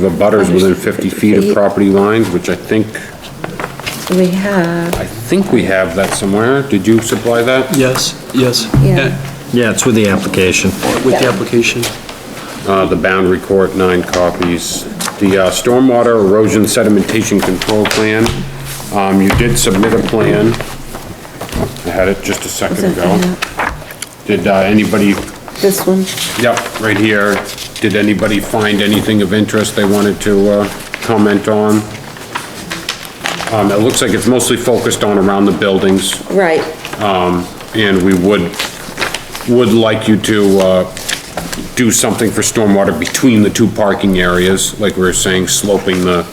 to the butters within 50 feet of property lines, which I think, We have, I think we have that somewhere. Did you supply that? Yes, yes. Yeah. Yeah, it's with the application. With the Yeah. application. Uh, the boundary court, nine copies. The, uh, stormwater erosion sedimentation control plan, um, you did submit a plan. I had it just a is second it ago. that? Did, uh, anybody this one? Yep, right here. Did anybody find anything of interest they wanted to uh, comment on? Um, It looks like it's mostly focused on around the buildings, Right, and we would, would like you to uh, do something for stormwater between the two parking areas, like we were saying, sloping the,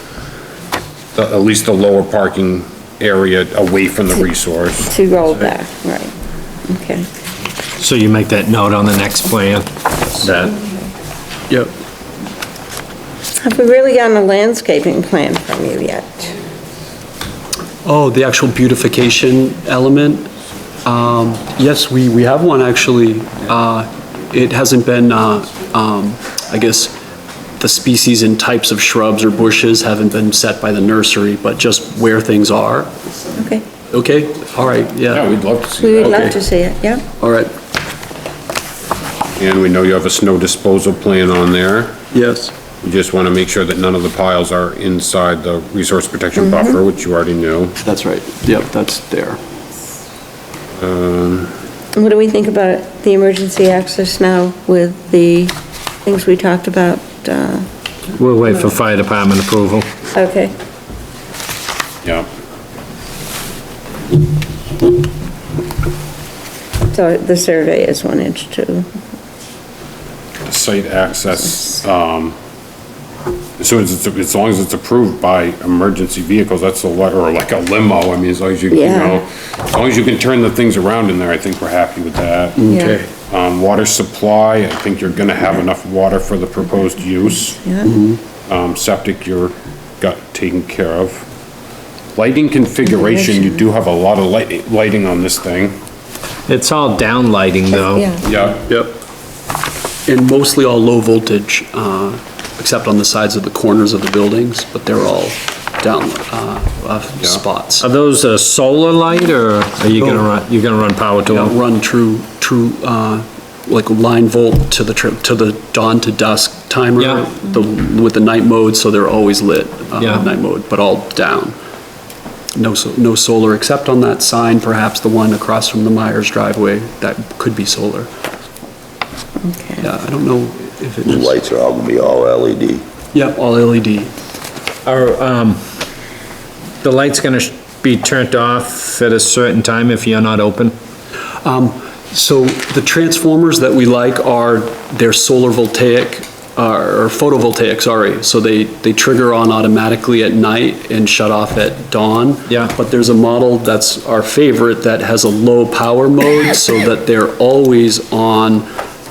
the- at least the lower parking area away from the resource. to roll back, right, okay. So you make that note on the next plan, that, Yep. Have we really gotten a landscaping plan from you yet? Oh, the actual beautification element? Um, Yes, we, we have one, actually. Uh, It hasn't been, uh, um, I guess, the species and types of shrubs or bushes haven't been set by the nursery, but just where things are. Okay, Okay, all right, Yeah, yeah, we'd love to see we that. would love Okay. to see it, yeah? all right, And we know you have a snow disposal plan on there. yes. We just want to make sure that none of the piles are inside the resource protection Mm-hmm. buffer, which you already knew. That's right, yep, that's there. And what do we think about the emergency access now with the things we talked about? uh, we'll wait for fire department approval. Okay, Yeah. so the survey is one inch too. Site access, um, as soon as it's, as long as it's approved by emergency vehicles, that's a, le- or like a limo, I mean, as long as you, you Yeah. know, as long as you can turn the things around in there, I think we're happy with that. Yeah. Okay. Um, water supply, I think you're gonna have enough water for the proposed use. Yeah, Um, septic, you're got taken care of. Lighting configuration, you do have a lot of light, lighting on this thing. It's all down lighting though. yeah, Yeah. Yep. And mostly all low voltage, uh, except on the sides of the corners of the buildings, but they're all down uh, uh, spots. Are those a solar light or are you gonna run, you're gonna run power to Yeah, them? Run true, true, uh, like line volt to the, tri- to the dawn to dusk timer Yeah. the- with the night mode, so they're always lit, uh, Yeah. night mode, but all down. No, so- no solar, except on that sign, perhaps the one across from the Myers driveway, that could be solar. okay. Yeah, I don't know if it The is. lights are all gonna be all E LED. Yeah, all E LED. Are, um, the light's gonna sh- be turned off at a certain time if you're not open? Um, So the transformers that we like are, they're solar voltaic, uh, or photovoltaic, sorry. So they, they trigger on automatically at night and shut off at dawn. Yeah. But there's a model that's our favorite that has a low power mode so that they're always on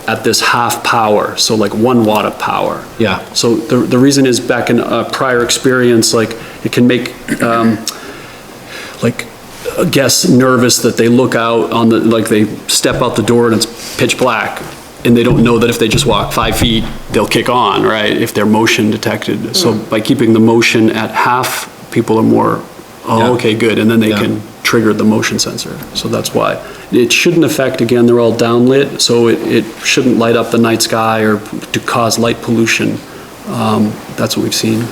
at this half power, so like one watt of power. Yeah. So the, the reason is back in a prior experience, like it can make, um, like uh, guests nervous that they look out on the, like they step out the door and it's pitch black and they don't know that if they just walk five feet, they'll kick on, right? If they're motion detected. So Mm. by keeping the motion at half, people are more, Yeah. oh, okay, good. And then they Yeah. can trigger the motion sensor. So that's why. It shouldn't affect, again, they're all downlit, so it, it shouldn't light up the night sky or to cause light pollution. Um, that's what we've seen.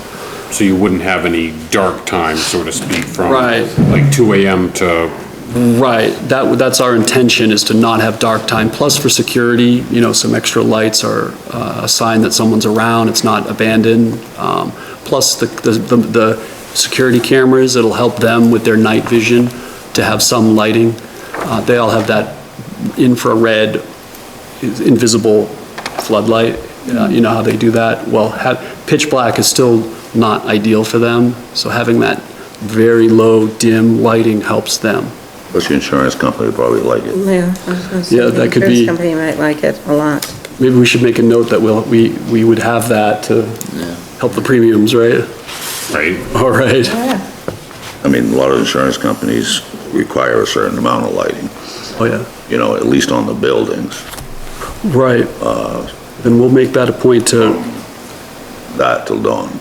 So you wouldn't have any dark time, so to speak, from Right. like two AM to, Right, that, that's our intention, is to not have dark time, plus for security, you know, some extra lights are uh, a sign that someone's around, it's not abandoned, Um, plus the, the, the- the security cameras, it'll help them with their night vision to have some lighting. Uh, They all have that infrared invisible floodlight, uh, you know how they do that? Well, ha- pitch black is still not ideal for them, so having that very low dim lighting helps them. But the insurance company would probably like it. Yeah, I was gonna say, Yeah, that could be- The insurance company might like it a lot. Maybe we should make a note that we'll, we, we would have that to help the premiums, right? right? All right, I mean, a lot of insurance companies require a certain amount of lighting, oh yeah, you know, at least on the buildings. uh, right. Then we'll make that a point to that till dawn.